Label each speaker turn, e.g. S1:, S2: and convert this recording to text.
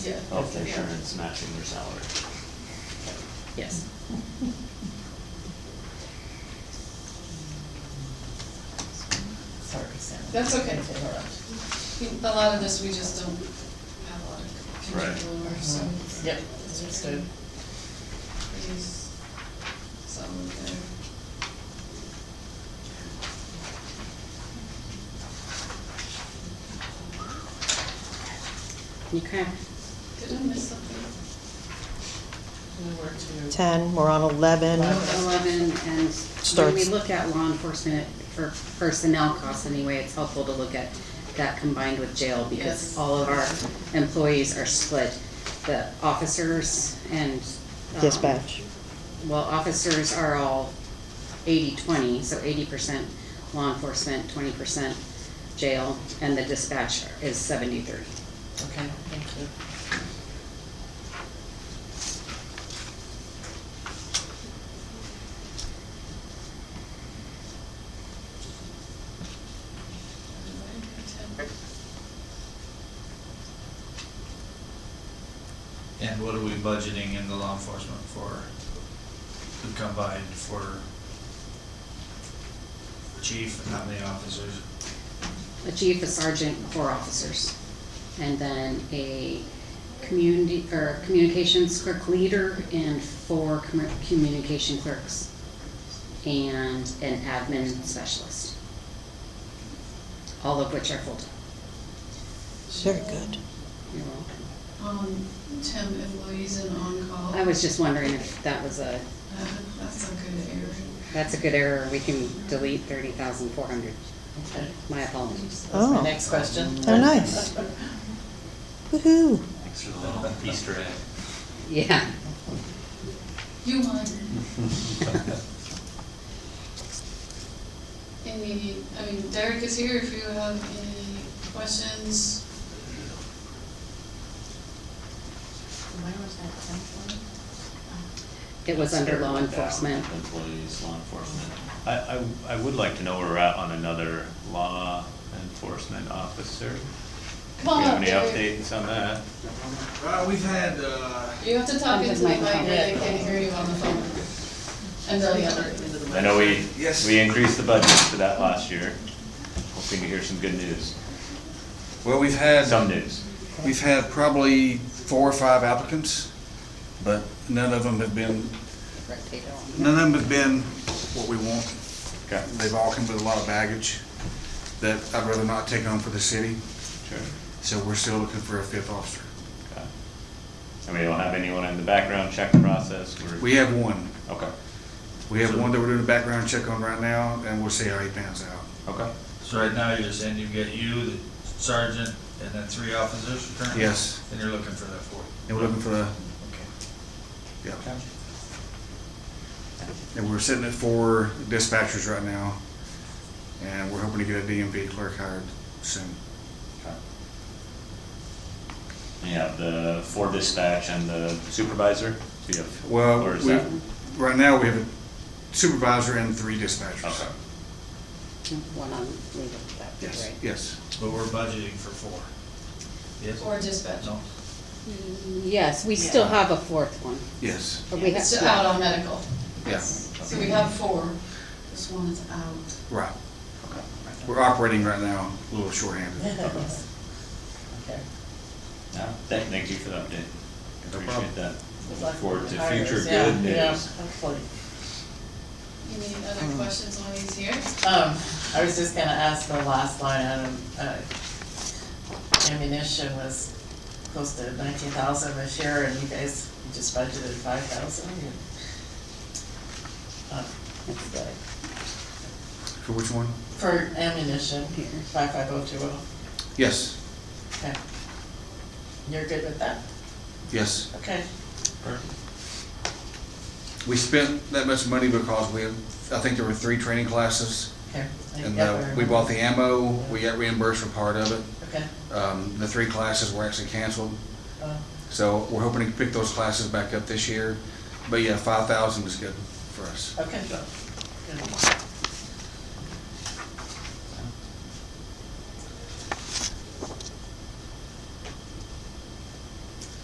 S1: Yeah.
S2: of insurance matching your salary.
S1: Yes.
S3: Sorry, Sam.
S1: That's okay.
S3: To interrupt.
S1: A lot of this, we just don't have a lot of control over, so.
S4: Mm-hmm.
S3: Yep, understood.
S1: Please, some of their.
S4: Okay.
S1: Did I miss something?
S3: We were to.
S5: 10, we're on
S4: Eleven,
S5: 11.
S4: and when we
S5: Starts-
S4: look at law enforcement for personnel costs anyway, it's helpful to look at that combined with jail
S1: Yes.
S4: because all of our employees are split. The officers and. um,
S5: Dispatch.
S4: Well, officers are all 80-20, so eighty percent law enforcement, twenty percent jail, and the dispatch is 70-30.
S3: Okay, thank you.
S1: Did I attend?
S6: And what are we budgeting in the law enforcement for, the combined for chief and how many officers?
S4: a chief, a sergeant, four officers. And then a community, or communications clerk leader and four commu- communication clerks. And an admin specialist. All of which are full-time.
S5: Very good.
S4: You're welcome.
S1: Um, temp employees and on-call.
S4: I was just wondering if that was a,
S1: Uh, That's a good area.
S4: that's a good error, we can delete thirty thousand four hundred. My apologies.
S3: That's my
S5: Oh.
S3: next question.
S5: Oh, nice. Woo-hoo.
S2: Thanks for the little Easter egg.
S4: Yeah.
S1: You won. Any, I mean, Derek is here if you have any questions.
S4: It was under law enforcement.
S2: Employees, law enforcement. I, I, I would like to know where we're at on another law enforcement officer. Do
S1: Come
S2: you
S1: on
S2: have
S1: up,
S2: any
S1: Derek.
S2: updates on that?
S7: Uh, we've had, uh,
S1: You have to talk
S4: Come to
S1: into the
S4: the
S1: mic,
S4: microphone.
S1: they can't hear you on the phone. And the other.
S2: I know we,
S7: Yes.
S2: we increased the budget for that last year, hoping to hear some good news,
S7: well, we've had,
S2: some news.
S7: we've had probably four or five applicants, but none of them have been, none of them have been what we want.
S2: Okay,
S7: They've all come with a lot of baggage that I'd rather not take on for the city,
S2: sure,
S7: so we're still looking for a fifth officer.
S2: okay. And we don't have anyone in the background check process, we're.
S7: We have one.
S2: Okay,
S7: We have one that we're doing a background check on right now, and we'll see how he pans out.
S2: okay,
S6: So right now, you're saying you've got you, the sergeant, and then three officers currently?
S7: Yes.
S6: And you're looking for that four?
S7: And we're looking for the, yeah. And we're sitting at four dispatchers right now, and we're hoping to get a DMV clerk hired soon.
S2: okay. You have the four dispatch and the supervisor, so you have.
S7: Well,
S2: or is
S7: we,
S2: that-
S7: right now, we have a supervisor and three dispatchers.
S2: Okay,
S4: One on leave, that would be
S7: Yes,
S4: great.
S7: yes.
S6: But we're budgeting for four? Yes?
S1: Or dispatch.
S6: No?
S4: Yes, we still have a fourth one.
S7: Yes.
S4: but we
S1: It's
S4: have-
S1: out on medical.
S7: Yeah.
S1: So we have four, this one is out.
S7: Right. We're operating right now a little shorthanded.
S3: Okay.
S2: No, thank, thank you for the update.
S7: No
S2: Appreciate
S7: problem.
S2: that.
S3: Good
S2: Look
S3: luck
S2: forward
S3: with
S2: to
S3: the hires.
S2: future
S3: Yeah,
S2: good
S3: yeah,
S2: news.
S3: hopefully.
S1: Any other questions while he's here?
S3: Um, I was just gonna ask the last line item, uh, ammunition was close to nineteen thousand this year, and you guys just budgeted five thousand. Uh, That's good.
S7: For which one?
S3: For ammunition, five five oh two oh,
S7: Yes,
S3: okay. You're good with that?
S7: yes.
S3: Okay.
S7: We spent that much money because we, I think there were three training classes.
S3: Okay.
S7: And
S3: Yeah,
S7: uh,
S3: I
S7: we bought the
S3: remember.
S7: ammo, we got reimbursed for part of it.
S3: Okay.
S7: Um, The three classes were actually canceled.
S3: Uh,
S7: So we're hoping to pick those classes back up this year. But yeah, five thousand is good for us.
S3: Okay. Good.